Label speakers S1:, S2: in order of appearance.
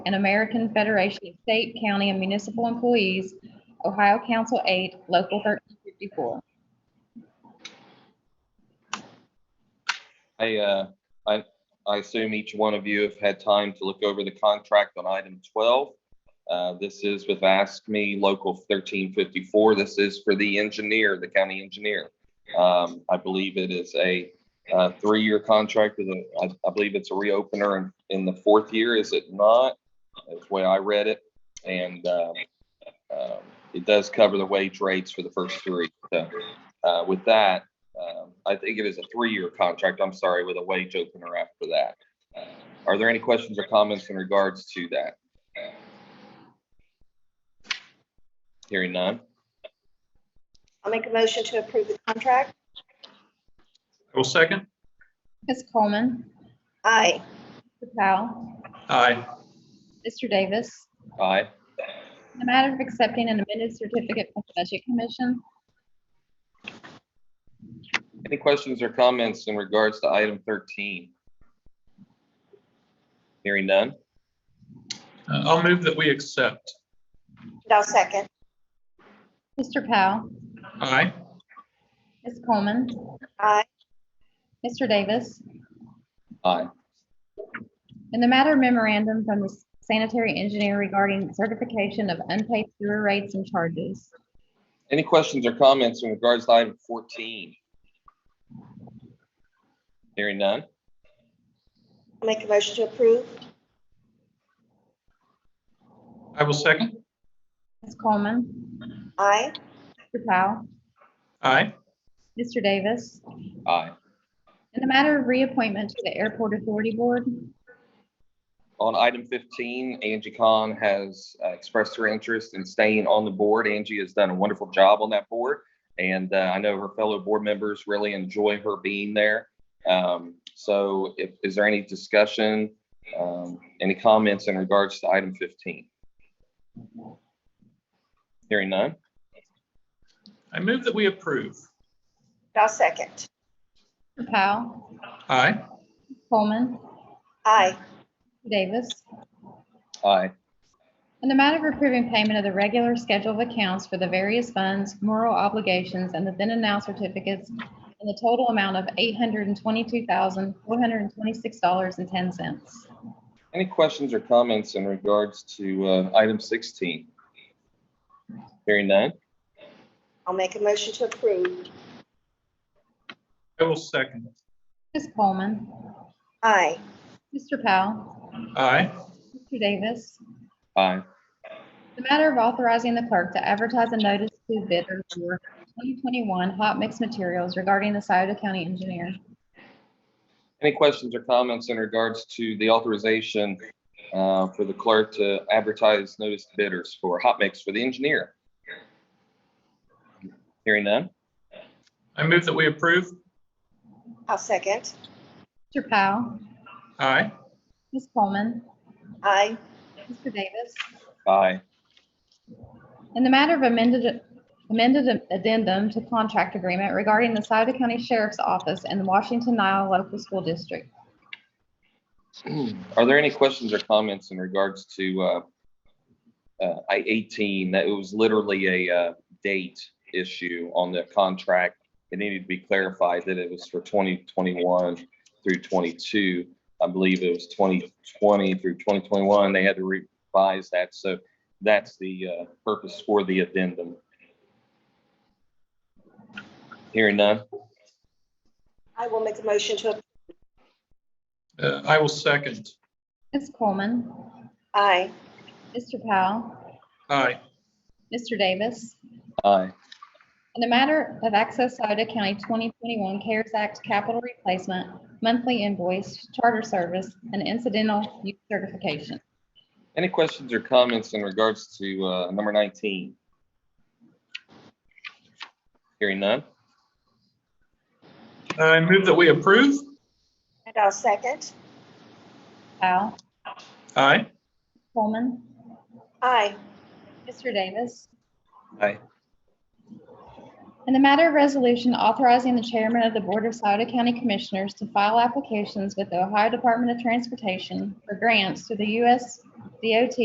S1: and American Federation of State, County, and Municipal Employees, Ohio Council 8, Local 1354.
S2: I, uh, I, I assume each one of you have had time to look over the contract on item twelve. Uh, this is with Ask Me Local thirteen fifty-four. This is for the engineer, the county engineer. Um, I believe it is a, uh, three-year contract with a, I, I believe it's a reopener in, in the fourth year, is it not? That's the way I read it. And, um, um, it does cover the wage rates for the first three. So, uh, with that, um, I think it is a three-year contract, I'm sorry, with a wage opener after that. Uh, Are there any questions or comments in regards to that? Hearing none.
S3: I'll make a motion to approve the contract.
S4: I will second.
S1: Ms. Coleman,
S3: Aye.
S1: Mr. Powell,
S4: Aye.
S1: Mr. Davis,
S2: Aye.
S1: in the matter of accepting an amended certificate from the Budget Commission,
S2: Any questions or comments in regards to item 13? Hearing none.
S4: Uh, I'll move that we accept.
S3: And I'll second.
S1: Mr. Powell,
S4: Aye.
S1: Ms. Coleman,
S3: Aye.
S1: Mr. Davis,
S2: Aye.
S1: in the matter of memorandum from the sanitary engineer regarding certification of unpaid sewer rates and charges.
S2: Any questions or comments in regards to item 14? Hearing none.
S3: I'll make a motion to approve.
S4: I will second.
S1: Ms. Coleman,
S3: Aye.
S1: Mr. Powell,
S4: Aye.
S1: Mr. Davis,
S2: Aye.
S1: In the matter of reappointment to the Airport Authority Board,
S2: On item fifteen, Angie Khan has uh, expressed her interest in staying on the board. Angie has done a wonderful job on that board. And uh, I know her fellow board members really enjoy her being there. Um, So if, is there any discussion, um, any comments in regards to item fifteen? Hearing none.
S4: I move that we approve.
S3: And I'll second.
S1: Mr. Powell,
S4: Aye.
S1: Coleman,
S3: Aye.
S1: Davis.
S2: Aye.
S1: In the matter of approving payment of the regular schedule of accounts for the various funds, moral obligations, and the then and now certificates in the total amount of eight hundred and twenty-two thousand, four hundred and twenty-six dollars and ten cents.
S2: Any questions or comments in regards to uh, item sixteen? Hearing none.
S3: I'll make a motion to approve.
S4: I will second.
S1: Ms. Coleman,
S3: Aye.
S1: Mr. Powell,
S4: Aye.
S1: Mr. Davis.
S2: Aye.
S1: The matter of authorizing the clerk to advertise a notice to bidder for twenty twenty-one hot mix materials regarding the Scioto County engineer.
S2: Any questions or comments in regards to the authorization uh, for the clerk to advertise notice to bidders for hot mix for the engineer? Hearing none.
S4: I move that we approve.
S3: I'll second.
S1: Mr. Powell,
S4: Aye.
S1: Ms. Coleman,
S3: Aye.
S1: Mr. Davis.
S2: Aye.
S1: In the matter of amended, amended addendum to contract agreement regarding the Souda County Sheriff's Office and the Washington Nile Local School District.
S2: Are there any questions or comments in regards to uh, uh, I eighteen? That it was literally a uh, date issue on the contract. It needed to be clarified that it was for twenty twenty-one through twenty-two. I believe it was twenty twenty through twenty twenty-one. They had to revise that. So that's the uh, purpose for the addendum. Hearing none.
S3: I will make a motion to, ap-
S4: Uh, I will second.
S1: Ms. Coleman,
S3: aye.
S1: Mr. Powell,
S4: Aye.
S1: Mr. Davis.
S2: Aye.
S1: In the matter of Access Souda County 2021 CARES Act capital replacement, monthly invoice, charter service, and incidental use certification.
S2: Any questions or comments in regards to uh, number 19? Hearing none.
S4: I move that we approve.
S3: And I'll second.
S1: Powell,
S4: Aye.
S1: Coleman,
S3: Aye.
S1: Mr. Davis.
S2: Aye.
S1: In the matter of resolution authorizing the chairman of the Board of Sauter County Commissioners to file applications with the Ohio Department of Transportation for grants through the U.S. DOT